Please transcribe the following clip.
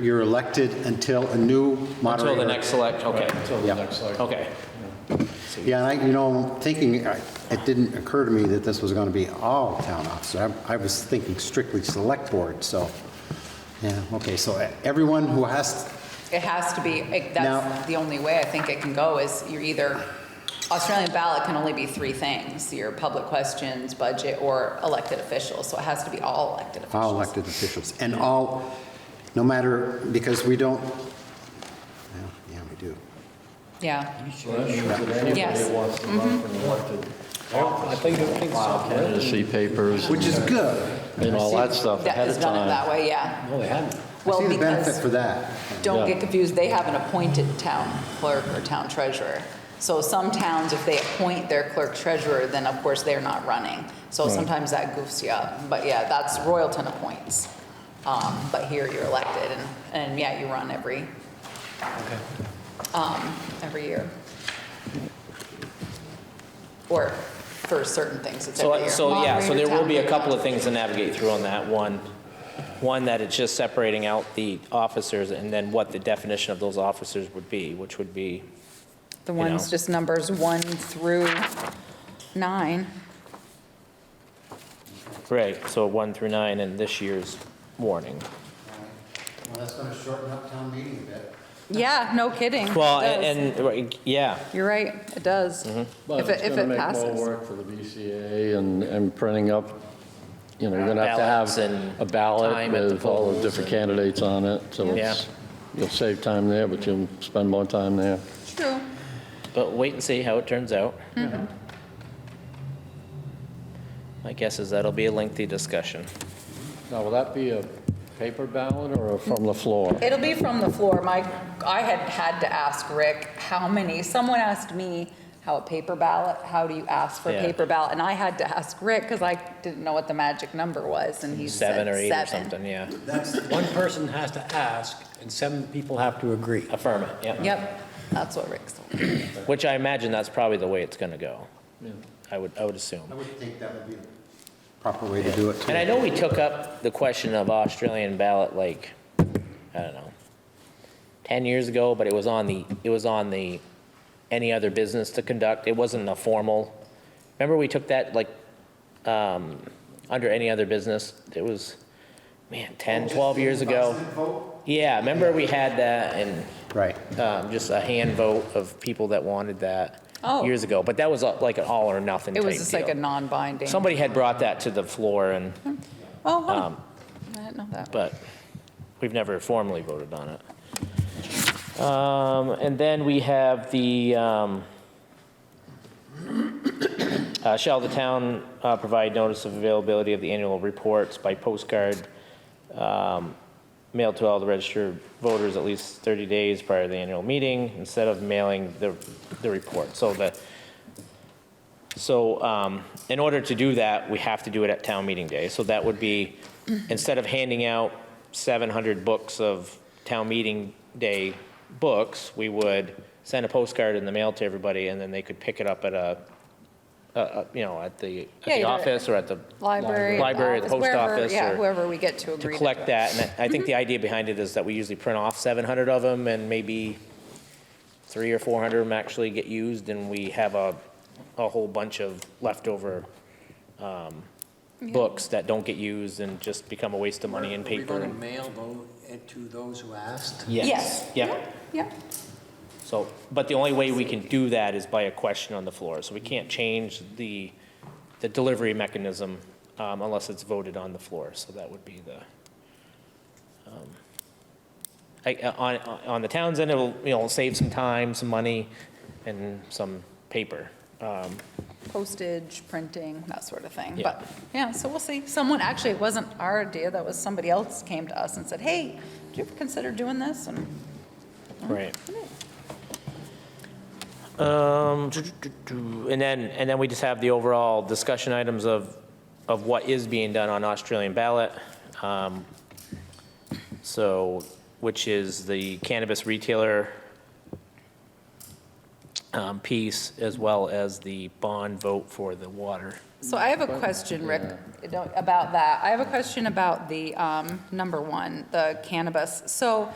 You're elected until a new moderator. Until the next select, okay. Till the Yeah. next cycle. Okay. Yeah, and I, you know, I'm thinking, I- it didn't occur to me that this was going to be all town officers. I I was thinking strictly select board, so, yeah, okay, so e, everyone who has, It has to be, it- Now- that's the only way I think it can go is you're either, Australian ballot can only be three things, your public questions, budget, or elected officials. So it has to be all elected officials. all elected officials, and all, no matter, because we don't, well, yeah, we do. Yeah, So that means that anybody Yes. who wants to run for an elected I think, I think so. Candidacy papers Which is good. and all that stuff that ahead is of done it that time. way, yeah. No, they hadn't. I Well, see the benefit for because, that. don't Yeah. get confused, they have an appointed town clerk or town treasurer. So some towns, if they appoint their clerk treasurer, then of course they're not running. So sometimes that goofs you up. But yeah, that's Royalton appoints. Um, But here you're elected and, and yeah, you run every, um, every year. Or for certain things, it's every So, year. so, yeah, so Moderator, there will town be a clerk. couple of things to navigate through on that. One, one, that it's just separating out the officers and then what the definition of those officers would be, which would be, The you one's know. just numbers one through nine. right, so one through nine and this year's warning. Well, that's going to shorten up town meeting a bit. Yeah, no kidding. It Well, does. and, Mm-hmm. and, yeah, You're right, it does. But If it's it, if going to it make more passes. work for the BCA and, and printing up, you know, you're going to have to Ballots have and a time ballot at the with all the polls different and- candidates on it, so it's, you'll save time there, but you'll spend more time there. True. but wait and see how it turns out. My guess is that'll be a lengthy discussion. Now, will that be a paper ballot or from the floor? It'll be from the floor. My, I had had to ask Rick, how many, someone asked me how a paper ballot, how do you ask for a Yeah. paper ballot? And I had to ask Rick because I didn't know what the magic number was and he said Seven seven. or eight or something, yeah. One person has to ask, and seven people have to agree. Affirm it, yeah. Yep, that's what Rick told me. Which I imagine that's probably the way it's going to go. I would, I would assume. I would think that would be a proper way to do it, too. And I know we took up the question of Australian ballot like, I don't know, 10 years ago, but it was on the, it was on the, any other business to conduct. It wasn't a formal. Remember, we took that like, um, under any other business? It was, man, 10, 12 years ago. Yeah, remember we had that and Right. um, just a hand vote of people that wanted that Oh. years ago. But that was uh, like an all or nothing It type was just like a deal. non-binding. Somebody had brought that to the floor and, Oh, huh. um, I didn't know that. but we've never formally voted on it. Um, And then we have the, um, uh, shall the town uh, provide notice of availability of the annual reports by postcard, um, mailed to all the registered voters at least 30 days prior to the annual meeting, instead of mailing the, the report? So the, so um, in order to do that, we have to do it at town meeting day. So that would be, instead of handing out 700 books of town meeting day books, we would send a postcard in the mail to everybody, and then they could pick it up at a, a- a- you know, at the, at Yeah, the you're- office or at the, Library. Library, the office, post wherever- office, Yeah, or- whoever we get to to agree to. collect that. And I I think the idea behind it is that we usually print off 700 of them, and maybe three or 400 of them actually get used, and we have a, a whole bunch of leftover um, books that don't get used and just become a waste of money in Are we paper. going to mail tho- it to those who asked? Yes. Yeah, Yeah. so, but the only way we can do that is by a question on the floor. So we can't change the, the delivery mechanism um, unless it's voted on the floor. So that would be the, um, I- uh, on, on the town's end, it'll, you know, save some time, some money, and some paper. Um, postage, printing, that sort of thing. Yeah. But, yeah, so we'll see. Someone, actually, it wasn't our idea, that was somebody else came to us and said, hey, do you ever consider doing this? And Right. Um, do- do- do- And then, and then we just have the overall discussion items of, of what is being done on Australian ballot. Um, So, which is the cannabis retailer um, piece as well as the bond vote for the water. So I have a question, Rick, don't- about that. I have a question about the um, number one, the cannabis. So